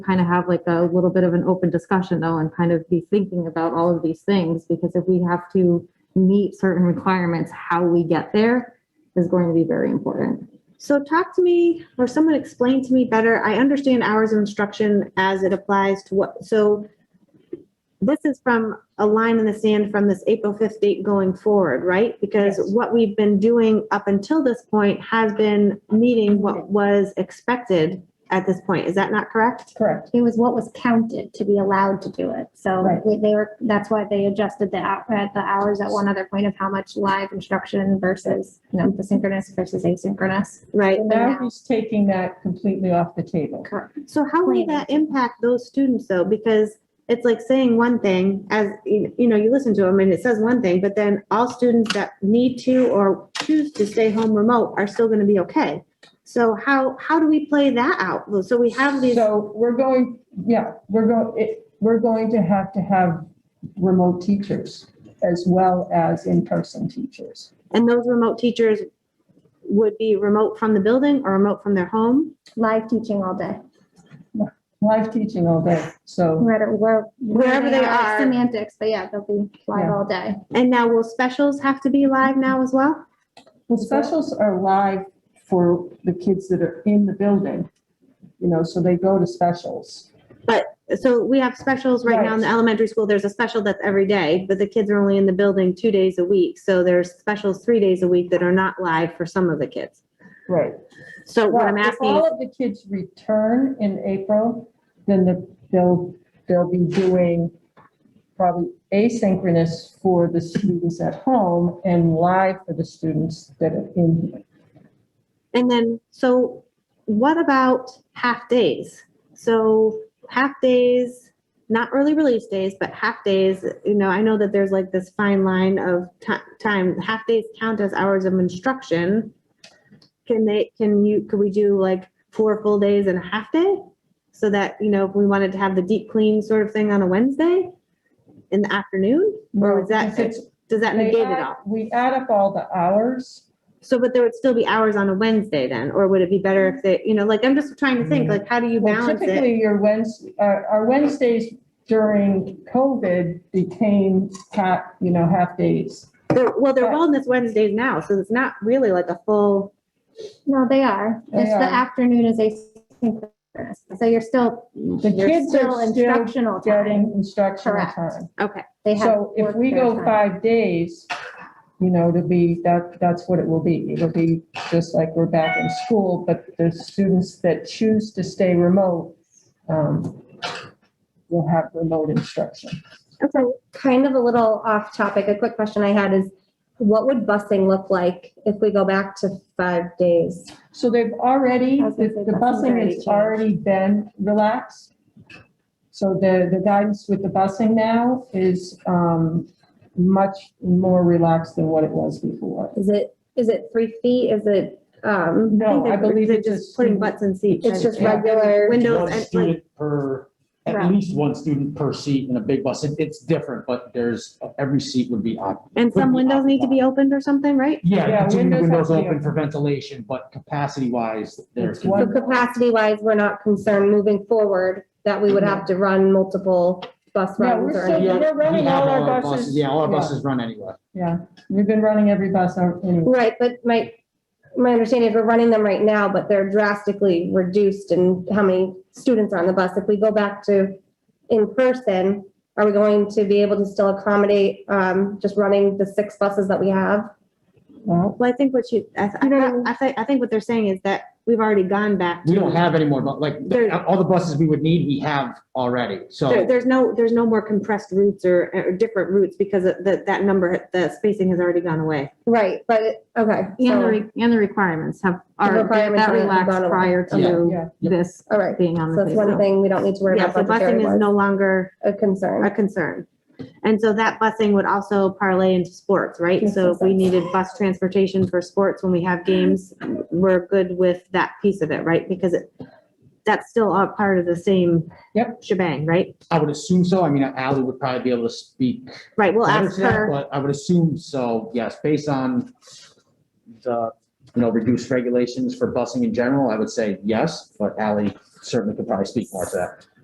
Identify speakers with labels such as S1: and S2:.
S1: kind of have like a little bit of an open discussion though and kind of be thinking about all of these things because if we have to meet certain requirements, how we get there is going to be very important.
S2: So talk to me, or someone explain to me better. I understand hours of instruction as it applies to what, so this is from a line in the sand from this April 5th date going forward, right? Because
S3: Yes.
S2: what we've been doing up until this point has been meeting what was expected at this point. Is that not correct?
S3: Correct.
S4: It was what was counted to be allowed to do it. So
S3: Right.
S4: they- they were, that's why they adjusted the, hou- uh, the hours at one other point of how much live instruction versus, you know, the synchronous versus asynchronous.
S2: Right.
S3: So now he's taking that completely off the table.
S4: Correct.
S2: So how will
S4: Planning.
S2: that impact those students though? Because it's like saying one thing as, you you know, you listen to them and it says one thing, but then all students that need to or choose to stay home remote are still gonna be okay. So how, how do we play that out? So we have these,
S3: So we're going, yeah, we're going, it, we're going to have to have remote teachers as well as in-person teachers.
S2: and those remote teachers would be remote from the building or remote from their home?
S4: Live teaching all day.
S3: Live teaching all day, so
S4: Where, where.
S2: Wherever they are.
S4: Semantics, but yeah, they'll be live
S3: Yeah.
S4: all day.
S2: And now will specials have to be live now as well?
S3: the specials are live for the kids that are in the building. You know, so they go to specials.
S2: So we have specials right now in the elementary school. There's a special that's every day, but the kids are only in the building two days a week. So there's specials three days a week that are not live for some of the kids.
S3: Right.
S2: So what I'm
S3: Well, if
S2: asking,
S3: all
S2: is-
S3: of the kids return in April, then the- they'll, they'll be doing probably asynchronous for the students at home and live for the students that are in here.
S2: and then, so what about half days? So half days, not early release days, but half days, you know, I know that there's like this fine line of ti- time, half days count as hours of instruction. Can they, can you, could we do like four full days and a half day? So that, you know, if we wanted to have the deep clean sort of thing on a Wednesday in the afternoon, or is that,
S3: If it's-
S2: does that
S3: they
S2: negate it
S3: add-
S2: all?
S3: We add up all the hours.
S2: So, but there would still be hours on a Wednesday then, or would it be better if they, you know, like, I'm just trying to think, like, how do you
S3: Well,
S2: balance it?
S3: Typically, your Wednesday, our our Wednesdays during COVID became, half, you know, half days.
S2: They're- Well, they're
S3: but-
S2: Wellness Wednesdays now, so it's not really like a full,
S4: No, they are.
S3: They
S4: It's
S3: are.
S4: the afternoon is asynchronous. So you're still,
S3: The
S4: you're
S3: kids are
S4: still
S3: still
S4: instructional time.
S3: getting instructional
S4: Correct.
S3: time.
S2: okay,
S4: They have
S3: So if
S4: work
S3: we
S4: their
S3: go
S4: time.
S3: five days, you know, to be, that, that's what it will be. It'll be just like we're back in school, but the students that choose to stay remote um, will have remote instruction.
S2: okay.
S5: kind of a little off topic, a quick question I had is what would busing look like if we go back to five days?
S3: So they've already,
S4: I was gonna
S3: the
S4: say
S3: the
S4: busing's
S3: busing
S4: already
S3: has already been relaxed. So the, the guidance with the busing now is um, much more relaxed than what it was before.
S5: Is it, is it three feet? Is it, um,
S3: No, I
S2: think they're-
S3: believe
S2: they're
S3: it's just
S2: Putting butts in seats.
S5: it's just
S2: and-
S3: Yeah.
S5: regular?
S2: Windows
S6: One
S2: and like,
S6: student per,
S5: Right.
S6: at least one student per seat in a big bus. It- It's different, but there's, every seat would be occupied.
S2: and some windows need to be opened or something, right?
S3: Yeah,
S6: Yeah, keeping the
S3: windows
S6: windows
S3: have to be
S6: open for ventilation, but capacity wise, there's.
S3: It's one-
S5: So capacity wise, we're not concerned moving forward that we would have to run multiple bus
S3: Yeah,
S5: runs
S3: we're
S5: or
S3: still-
S5: anything.
S3: We're running
S6: We have
S3: all our buses.
S6: Yeah, all our
S3: Yeah.
S6: buses run anyway.
S3: Yeah, we've been running every bus out anyway.
S5: Right, but my, my understanding is we're running them right now, but they're drastically reduced in how many students are on the bus. If we go back to in person, are we going to be able to still accommodate, um, just running the six buses that we have?
S3: Well,
S2: Well, I think what you, I, I,
S5: You know-
S2: I think, I think what they're saying is that we've already gone back.
S6: We
S2: to-
S6: don't have any more, but like,
S2: There-
S6: all the buses we would need, we have already.
S2: There,
S6: So
S2: there's no, there's no more compressed routes or, or different routes because of that, that number, the spacing has already gone away.
S5: Right, but, okay,
S1: And the,
S5: so,
S1: re- and the requirements have, are
S5: requirements
S1: that
S5: are
S1: relaxed
S5: bottom.
S1: prior
S3: Yeah.
S1: to this
S5: all right.
S1: being on
S5: So
S1: the
S5: that's one
S1: table.
S5: thing we don't need to worry
S2: Yeah,
S5: about
S2: so
S5: budgetary
S2: busing is
S5: wise,
S2: no longer
S5: a
S2: a
S5: concern.
S2: concern. And so that busing would also parlay into sports, right?
S5: Yes,
S2: So if we
S5: yes, yes.
S2: needed bus transportation for sports when we have games, we're good with that piece of it, right? Because it, that's still a part of the same
S3: Yep.
S2: shebang, right?
S6: I would assume so. I mean, Ally would probably be able to speak.
S2: Right, we'll
S6: better
S2: ask
S6: to that,
S2: her,
S6: But I would assume so, yes, based on the, you know, reduced regulations for busing in general, I would say yes, but Ally certainly could probably speak more to that.